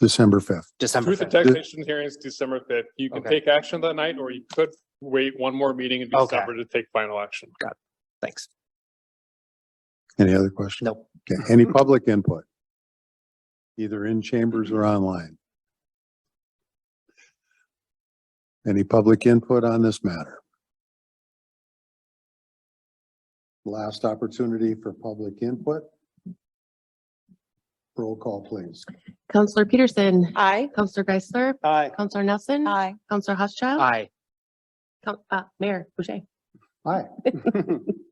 December fifth. December Truth in 5th. taxation hearings December fifth. You can Okay. take action that night, or you could wait one more meeting in Okay. December to take final action. Thanks. Any other questions? Nope. Okay, any public input? Either in chambers or online? Any public input on this matter? Last opportunity for public input. Roll call, please. Counselor Peterson, Aye. Counselor Geisler, Aye. Counselor Nelson, Aye. Counselor Hochschild, Aye. Coun- uh, Mayor Boucher. Hi.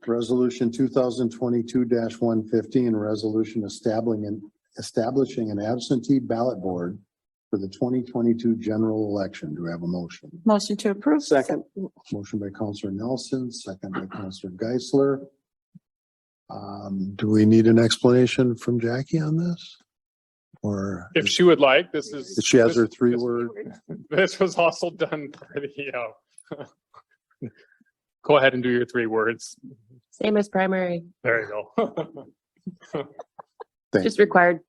Resolution two thousand twenty-two one fifteen, resolution establishing an, establishing an absentee ballot board for the twenty twenty-two general election. Do I have a motion? Motion to approve. Second. Motion by Counselor Nelson, second by Counselor Geisler. Um, do we need an explanation from Jackie on this? Or If she would like, this is. she has her this- three this- word, This was also done for the, uh. Go ahead and do your three words. Same as primary, There you go. Thank just required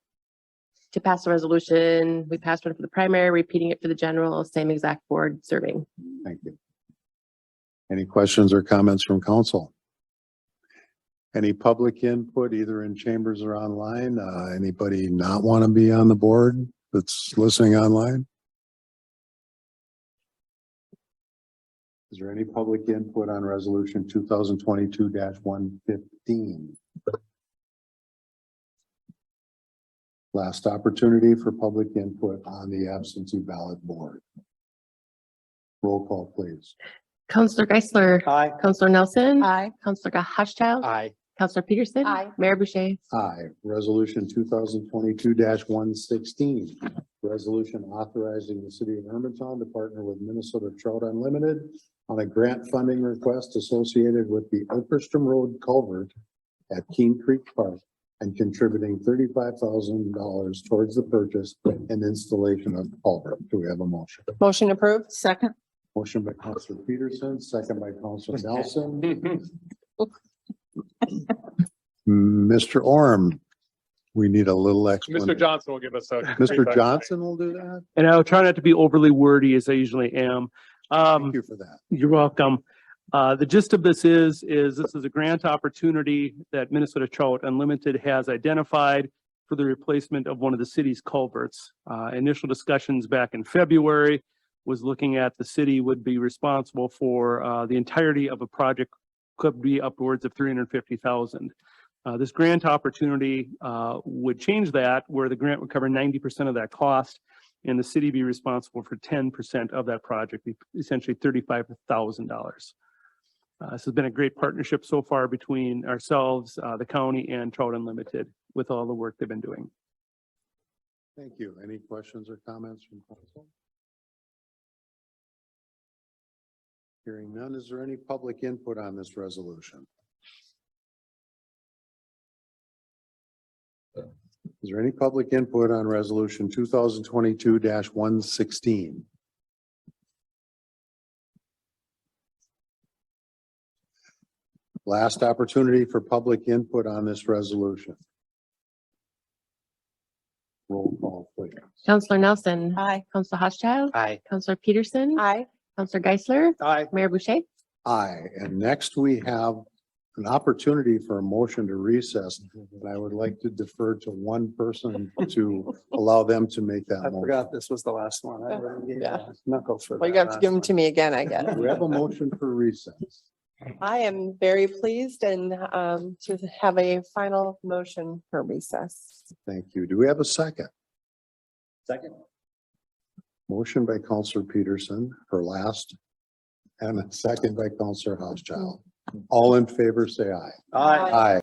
to pass the resolution. We passed one for the primary, repeating it for the general, same exact board serving. Thank you. Any questions or comments from council? Any public input, either in chambers or online? Uh, anybody not want to be on the board that's listening online? Is there any public input on resolution two thousand twenty-two one fifteen? Last opportunity for public input on the absentee ballot board. Roll call, please. Counselor Geisler, Aye. Counselor Nelson, Aye. Counselor Hochschild, Aye. Counselor Peterson. Aye. Mayor Boucher. Aye. Resolution two thousand twenty-two one sixteen. Resolution authorizing the city of Hermantown to partner with Minnesota Trout Unlimited on a grant funding request associated with the Oakstrom Road culvert at Keene Creek Park and contributing thirty-five thousand dollars towards the purchase and installation of culvert. Do we have a motion? Motion approved. Second. Motion by Counselor Peterson, second by Counselor Nelson. Mr. Orm, we need a little Mr. explanation. Johnson will give us a. Mr. Johnson will do that? And I'll try not to be overly wordy as I usually am. Um, Thank you for that. you're welcome. Uh, the gist of this is, is this is a grant opportunity that Minnesota Trout Unlimited has identified for the replacement of one of the city's culverts. Uh, initial discussions back in February was looking at the city would be responsible for, uh, the entirety of a project could be upwards of three hundred and fifty thousand. Uh, this grant opportunity, uh, would change that where the grant would cover ninety percent of that cost and the city be responsible for ten percent of that project, e- essentially thirty-five thousand dollars. Uh, This has been a great partnership so far between ourselves, uh, the county and Trout Unlimited with all the work they've been doing. Thank you. Any questions or comments from council? Hearing none, is there any public input on this resolution? Is there any public input on resolution two thousand twenty-two one sixteen? Last opportunity for public input on this resolution. Roll call, please. Counselor Nelson, Aye. Counselor Hochschild, Aye. Counselor Peterson, Aye. Counselor Geisler, Aye. Mayor Boucher. Aye, and next we have an opportunity for a motion to recess, and I would like to defer to one person to allow them to make that motion. this was the last one. I Yeah. Knuckles for. Well, you have to give them to me again, I guess. We have a motion for recess. I am very pleased and um to have a final motion for recess. Thank you. Do we have a second? Second. Motion by Counselor Peterson, her last, and a second by Counselor Housechild. All in favor, say aye. Aye. Aye.